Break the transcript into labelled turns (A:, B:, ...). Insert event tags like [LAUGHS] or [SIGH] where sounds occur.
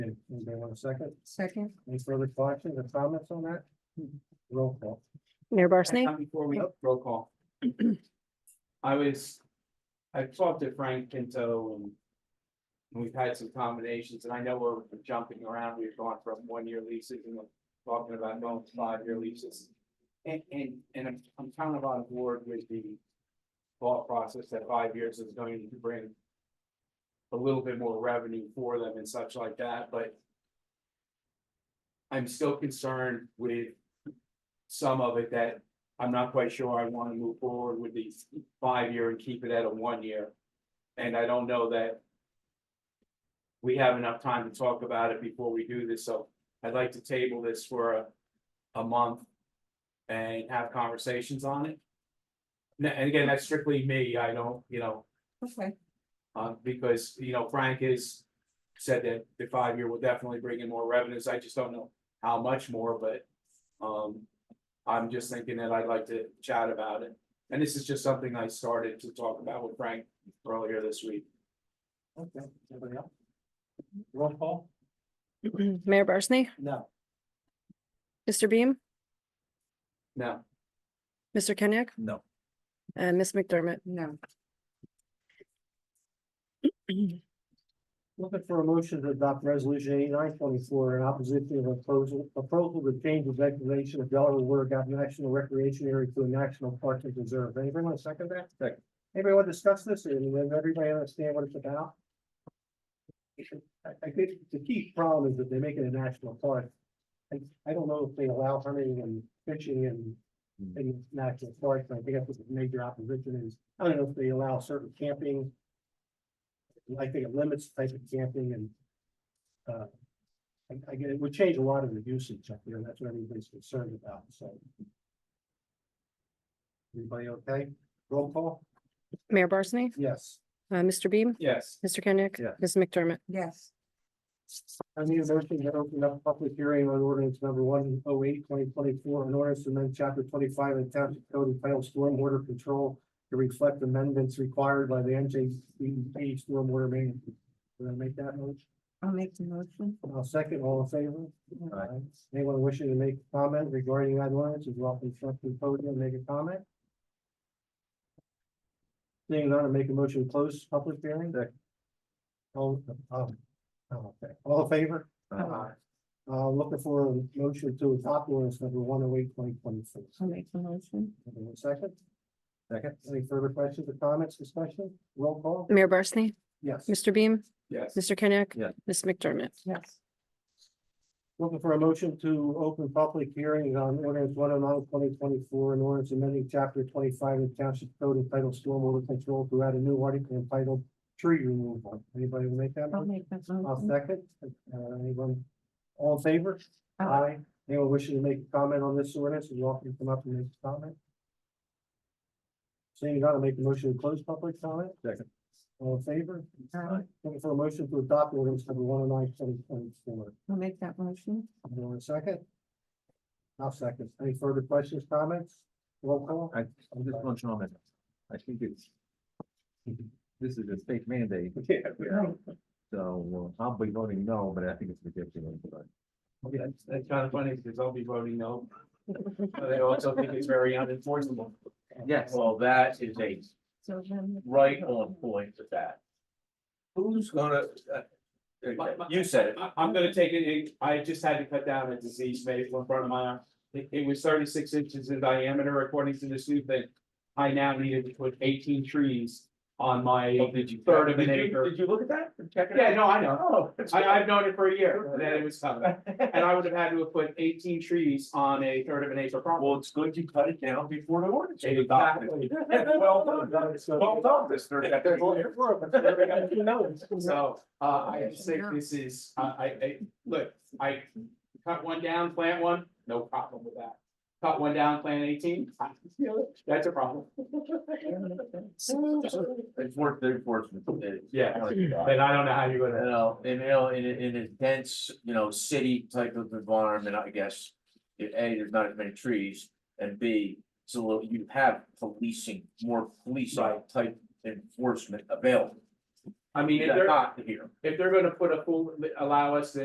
A: Okay, anybody want a second?
B: Second.
A: Any further questions or comments on that? Roll call.
C: Mayor
D: Uh,
C: Barsney?
D: Before we
A: Yep.
D: roll call. I was, I talked to Frank Pinto and. We've had some combinations and I know we're jumping around. We've gone from one year leases and we're talking about going to five year leases. And, and, and I'm, I'm kind of on board with the. Thought process that five years is going to bring. A little bit more revenue for them and such like that, but. I'm still concerned with. Some of it that I'm not quite sure I wanna move forward with the five year and keep it at a one year. And I don't know that. We have enough time to talk about it before we do this, so I'd like to table this for a, a month. And have conversations on it. N- And again, that's strictly me, I don't, you know,
B: Okay,
D: uh, because, you know, Frank has said that the five year will definitely bring in more revenues, I just don't know how much more, but. Um, I'm just thinking that I'd like to chat about it, and this is just something I started to talk about with Frank earlier this week.
A: Okay, anybody else? Roll call?
C: [CLEARS THROAT] Mayor Barsney?
A: No.
C: Mr. Beam?
D: Now,
C: Mr. Kenyek?
A: No.
C: And Ms. McDermott?
B: no,
A: Looking for a motion to adopt resolution eighty-nine twenty-four in opposition of a proposal, proposal to change the declaration of Delaware Water Gap National Recreation Area to a national park and preserve. Anybody want to second that? Second. Anybody want to discuss this? And does everybody understand what it's about? I, I think the key problem is that they make it a national park. I, I don't know if they allow hunting and fishing and in national parks. I think that's what the major opposition is. I don't know if they allow certain camping. I think it limits the type of camping and. uh, I, I get it, would change a lot of the usage up there, and that's what everybody's concerned about, so. Everybody okay? Roll call?
C: Mayor Barsney?
A: Yes.
C: Uh, Mr. Beam?
D: yes,
C: Mr. Kenyek?
A: Yeah.
C: Ms. McDermott?
B: yes,
A: I need a motion to open up public hearing on ordinance number one oh eight twenty twenty-four, an ordinance to amend chapter twenty-five of the township code entitled stormwater control to reflect amendments required by the NJCDP stormwater management. Did I make that motion?
B: I'll make the motion.
A: I'll second, all in favor? Aye. Anyone wishing to make a comment regarding that ordinance is welcome to come to the podium and make a comment. Seeing none, I make a motion to close public hearing. All, um, oh, okay, all in favor?
B: Aye.
A: Uh, looking for a motion to adopt ordinance number one oh eight twenty twenty four.
B: I'll make the motion.
A: Anyone second? Second. Any further questions or comments, discussion, roll call?
C: Mayor Barsney?
A: Yes.
C: Uh, Mr. Beam?
D: yes,
C: Mr. Kenyek?
A: Yeah.
C: Ms. McDermott?
B: Yes,
A: Looking for a motion to open public hearing on ordinance one oh nine twenty twenty-four and ordinance amending chapter twenty-five of the township code entitled stormwater control to add a new article entitled tree removal. Anybody will make that?
B: I'll
A: motion?
B: make that
A: I'll
B: motion.
A: second. Uh, anyone? All in favor?
B: Aye.
A: Anyone wishing to make a comment on this ordinance, you're welcome to come up and make a comment. Seeing none, I'll make a motion to close public comment. Second. All in favor?
B: Aye.
A: Looking for a motion to adopt ordinance number one oh nine twenty twenty-four.
B: I'll make that motion.
A: You want a second? I'll second. Any further questions, comments? Roll call?
E: I, I'm just one comment. I think it's. This is a state mandate,
A: Yeah.
E: so uh, I'll be voting no, but I think it's ridiculous, but.
D: that's, that's kind of funny, because I'll be voting
A: [LAUGHS]
D: no. But I also think it's very unenforceable.
E: Yes.
F: Well, that is a
B: So then.
F: right on point with that. Who's gonna, uh, you said it,
D: I, am gonna take it, it, I just had to cut down a disease maple in front of my, eye. it, it was thirty-six inches in diameter according to this new thing. I now needed to put eighteen trees on my third of an
F: Oh, Did you-
D: acre.
F: Did you look at that? Check it out?
D: Yeah, no, I know,
F: Oh.
D: I, I've known it for a year, that it was coming, and I would have had to have put eighteen trees on a third of an acre property.
F: Well, it's good you cut it down before the ordinance. was adopted. [LAUGHS]
D: Exactly.
F: Well done, well done, mister.
D: So, uh, I just think this is, I, I, I, look, I cut one down, plant one, no problem with that. Cut one down, plant eighteen, I feel it, that's a problem.
F: It's worth the enforcement.
D: Yeah,
F: You
D: but I don't know how you're gonna,
F: know, and you know, in a, in a dense, you know, city type of environment, I guess. A, there's not as many trees, and B, so you have policing, more police type enforcement available.
D: I mean, if
F: That's
D: they're,
F: not here.
D: if they're gonna put a full, allow us to